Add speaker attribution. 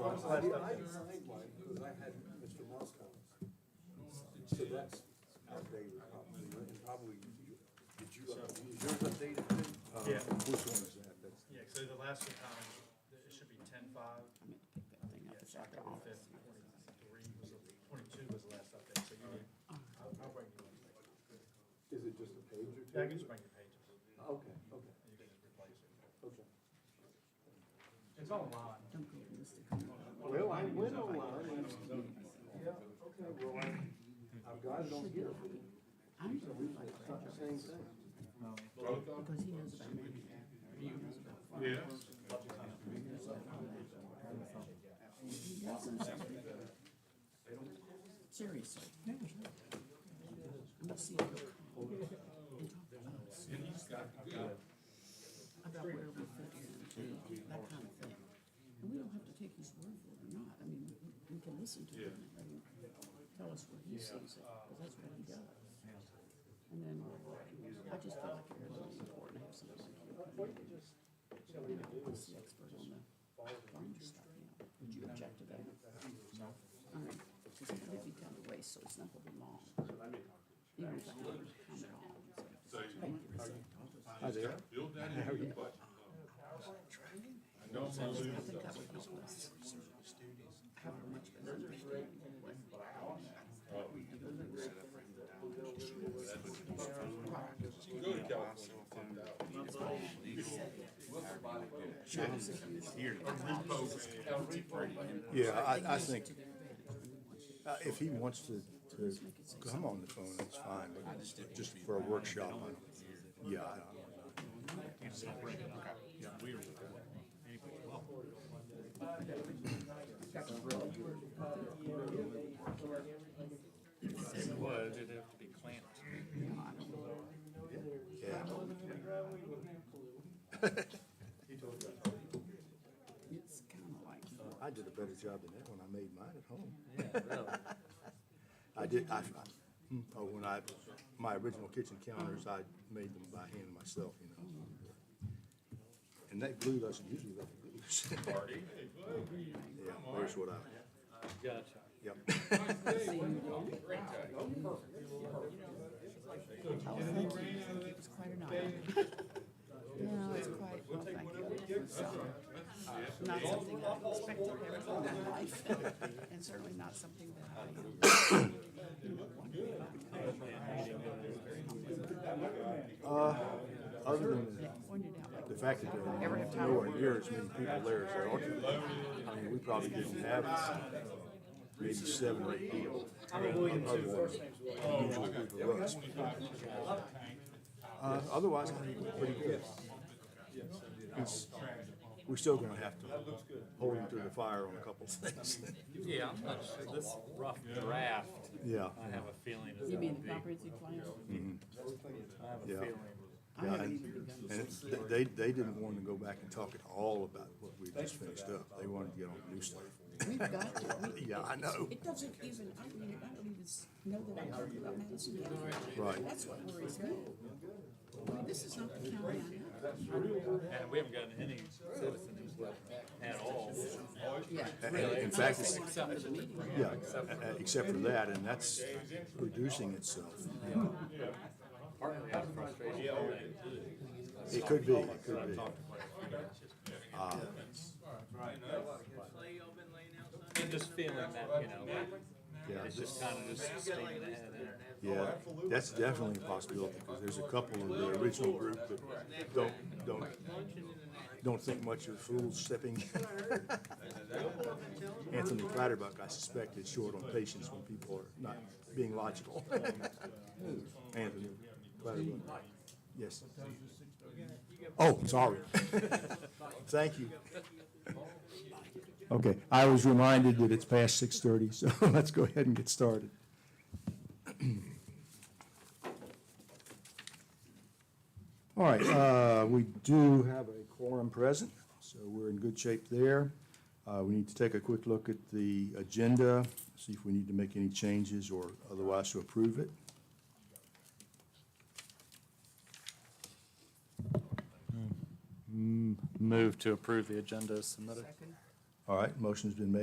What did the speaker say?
Speaker 1: was the last update? I designed mine because I had Mr. Moscow's. So that's outdated probably, and probably you, did you, is yours updated too? Uh,
Speaker 2: Yeah.
Speaker 1: Which one is that? That's,
Speaker 2: Yeah, so the last one, um, it should be ten five,
Speaker 3: meant to pick that thing up, it's
Speaker 2: yes,
Speaker 3: at the
Speaker 2: October
Speaker 3: office.
Speaker 2: fifth, twenty-three was, the- twenty-two was the last update, so you need, I'll, I'll bring you one. later.
Speaker 1: is it just a page or two?
Speaker 2: Yeah, I can just bring you pages, and you
Speaker 1: Okay, okay,
Speaker 2: can just replace it.
Speaker 1: okay.
Speaker 2: It's online.
Speaker 3: Don't go to Mr. Connell.
Speaker 1: Well, I went online and. Yeah, okay, well, I- I've got it on here.
Speaker 3: I'm the
Speaker 1: So
Speaker 3: one
Speaker 1: it's
Speaker 3: like that,
Speaker 1: not the same thing.
Speaker 3: because he knows about me. He knows some stuff. Seriously. I'm gonna see if he'll come and talk to us about where we fit in, that kind of thing. And we don't have to take his word for it or not, I mean, we- we can listen to him and let him tell us where he sees it, because that's what he does. And then, I just feel like it really important to have somebody like you. come in and, You know, us the expert on the farm stuff, you know, would you object to that? All right, because it would be down the way, so it's not gonna be long. Even if I have to come at all, so just make it so.
Speaker 1: Hi there.
Speaker 4: Build that um, into your budget.
Speaker 3: I think that would help us have a much better understanding of what we do.
Speaker 4: You can go to California. and find out.
Speaker 5: Yeah, I, I think, uh, if he wants to, to come on the phone, that's fine, but just for a workshop, I don't, yeah, I don't.
Speaker 6: It was, it'd have to be clamped.
Speaker 5: Yeah.
Speaker 3: It's kinda like,
Speaker 5: I did a better job than that when I made mine at home.
Speaker 6: Yeah,
Speaker 5: I did, I, I, hmm, oh, when I, my original kitchen counters, I made them by hand myself, you know. And that glue doesn't usually let it loose. Yeah, there's what I,
Speaker 6: Gotcha.
Speaker 5: yep.
Speaker 3: it was quite an hour. No, it's quite, well, thank you. So, Not something I expected ever in my life, and certainly not something that I.
Speaker 5: Uh, other than that.
Speaker 3: pointed out, like,
Speaker 5: The fact that there
Speaker 3: have
Speaker 5: are
Speaker 3: time.
Speaker 5: nowhere near as many people there as there ought to be, I mean, we probably didn't have maybe seven or eight people. Other than the usual group of us. Uh, otherwise, I think we're pretty good. It's- We're still gonna have to hold him through the fire on a couple of things.
Speaker 6: Yeah, I'm not sure, this rough draft,
Speaker 5: Yeah,
Speaker 6: I have a feeling is
Speaker 3: You
Speaker 6: gonna
Speaker 3: mean the
Speaker 6: be, I
Speaker 3: comprehensive plan?
Speaker 6: have a
Speaker 5: Yeah.
Speaker 6: feeling.
Speaker 3: I
Speaker 5: yeah,
Speaker 3: haven't
Speaker 5: and,
Speaker 3: even begun
Speaker 5: and
Speaker 3: to.
Speaker 5: it- they, they didn't want to go back and talk at all about what we just finished up, they wanted to get on to new stuff.
Speaker 3: We've got to, we.
Speaker 5: Yeah, I know.
Speaker 3: It doesn't even, I mean, I don't even s- know that I'm talking about Madison County.
Speaker 5: Right.
Speaker 3: That's what worries me. I mean, This is not the county I know.
Speaker 6: And we haven't gotten any citizen input at all.
Speaker 5: And- and In fact, it's,
Speaker 3: Except for the meeting.
Speaker 5: Yeah, uh, uh, except for that, and that's reducing itself.
Speaker 6: Partly out of frustration.
Speaker 5: It could be, it could be. Uh,
Speaker 6: And just feeling that, you know,
Speaker 5: Yeah,
Speaker 6: it's
Speaker 5: this-
Speaker 6: just kind of just sticking it in there.
Speaker 5: yeah, that's definitely a possibility, because there's a couple of the original group that don't, don't, don't think much of fools stepping. Anthony Clatterbuck, I suspect, is short on patience when people are not being logical. Anthony Clatterbuck, yes. Oh, sorry. Thank you. Okay, I was reminded that it's past six-thirty, so let's go ahead and get started. All right, uh, we do have a quorum present, so we're in good shape there. Uh, We need to take a quick look at the agenda, see if we need to make any changes or otherwise to approve it.
Speaker 6: Move to approve the agenda as submitted.
Speaker 3: Second.
Speaker 5: All right, motion's been made